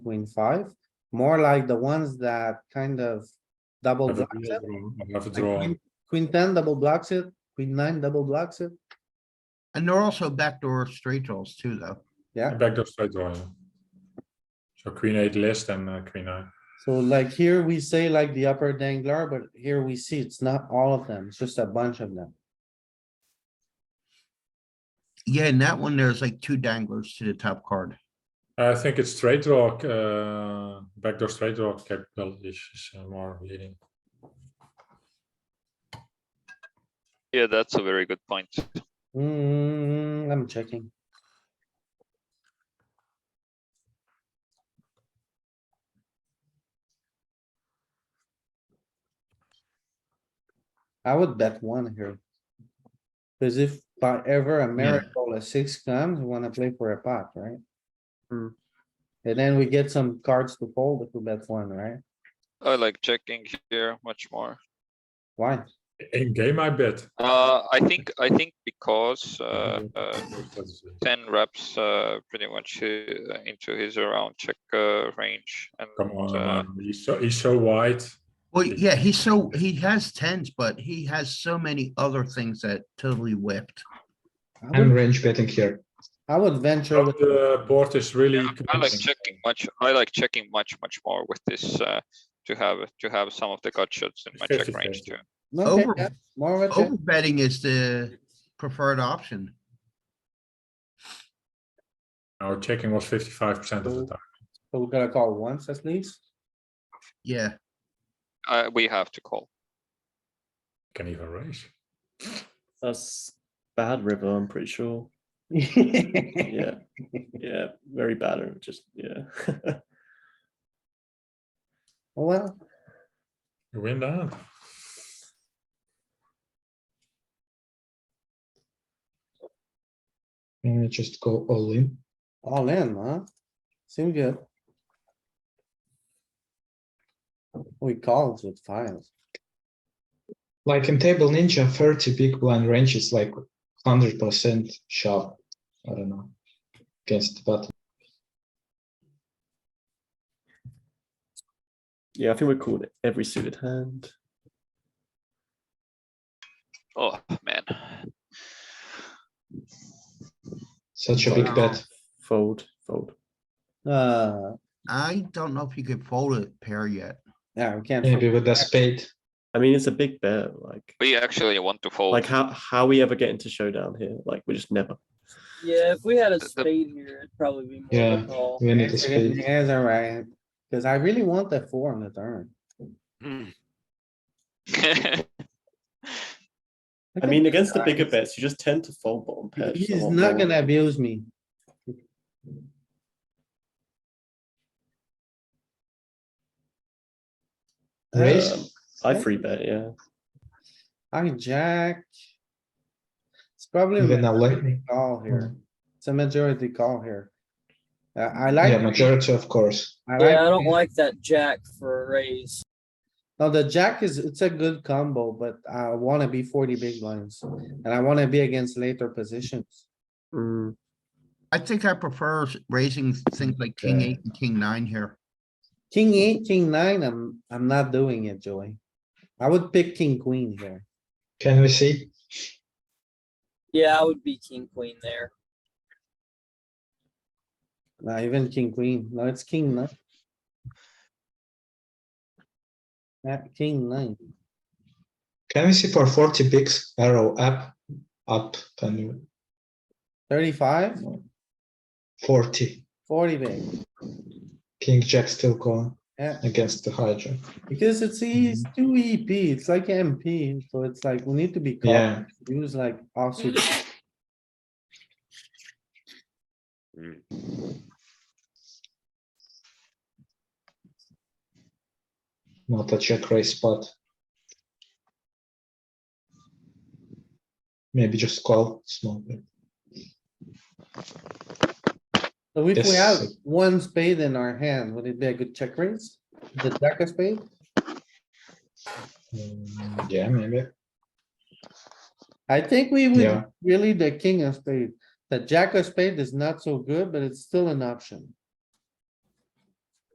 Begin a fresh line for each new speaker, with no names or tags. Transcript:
queen five, more like the ones that kind of double
Have a
blocks
draw,
it.
draw, have a
like
draw.
queen- Queen ten double blocks it, queen nine double blocks it,
And they're also backdoor straight draws too, though.
yeah.
Backdoor straight draw, yeah. So queen eight list and uh, queen nine.
So like here we say like the upper dangler, but here we see it's not all of them, it's just a bunch of them.
Yeah, in that one, there's like two danglers to the top card.
I think it's straight draw, uh, backdoor straight draw capital is is, uh, more leading.
Yeah, that's a very good point.
Hmm, I'm checking. I would bet one here. Cause if by ever a miracle, a six comes, we wanna play for a pot, right? And then we get some cards to fold if we bet one, right?
I like checking here much more.
Why?
In game, I bet.
Uh, I think, I think because,
Mm-hmm.
uh,
Mhm.
uh,
That's it.
ten reps, uh, pretty much uh, into his around check, uh, range and.
Come on,
uh,
man. he's so he's so wide.
Well, yeah, he's so, he has tens, but he has so many other things that totally whipped.
I
I'm
would,
range betting here.
I would
Oh,
venture with,
The board is really.
I like
convincing.
checking much, I like checking much, much more with this, uh, to have, to have some of the gut shots in my check
50-50.
range too.
okay,
Over- Oh.
yeah, more of a check.
Overbetting is the preferred option.
Our checking was fifty-five percent of the time.
So we gotta call once at least.
Yeah,
Uh, we have to call.
Can even raise.
That's bad river, I'm pretty sure. Yeah, yeah, very bad. and Just yeah.
Well,
You win that.
Uh, just go all in.
all in, huh? Seem good. We called with files.
Like in Table Ninja, 30 big blind range is like 100% sharp. I don't know. Against the button.
Yeah, I think we're called every suited hand.
Oh, man.
Such a big
Wow.
bet.
Fold, fold.
Uh,
I don't know if you could fold a pair yet.
yeah, we can't.
Maybe with a spade.
I mean, it's a big bet. Like,
We actually want to fold.
like how how we ever get into showdown here? Like, we just never.
Yeah, if we had a
the-
spade here, it'd probably be more
Yeah.
of a call.
We need a spade.
Yes, alright, cuz I really want the four on the turn.
I mean, against the bigger bets, you just tend to fold bottom pairs. a
He's
lot
not
more.
gonna abuse me.
Raise.
Um, I free bet. Yeah,
I jack. It's probably a
Even a late-
majority call here. It's a majority call here. Uh, I like.
Hmm. Yeah, majority, of course.
I like-
Yeah, I don't like that jack for a raise.
Now the jack is, it's a good combo, but I wanna be forty big blinds and I wanna be against later positions.
Mm,
I think I prefer s- raising things like king eight and king nine here.
King eight, king nine, I'm, I'm not doing it, Joey. I would pick king queen here.
Can we see?
Yeah, I would be king queen there.
Nah, even king queen. No, it's king nine. Yeah, king nine.
Can we see for 40 bigs arrow up? Up. Can you?
Thirty-five,
40.
forty big.
King Jack still calling
Yeah,
against the hijack.
because it's easy,
Mm-hmm.
two EP, it's like MP, so it's like, we need to be
Yeah.
cautious. Use like offsuit.
Not a check raise spot. Maybe just call small bit.
So if we have
Yes.
one spade in our hand, would it be a good check raise? The jack of spade?
Mm, Yeah, maybe.
I think we would,
Yeah.
really the king of spade. The jack of spade is not so good, but it's still an option.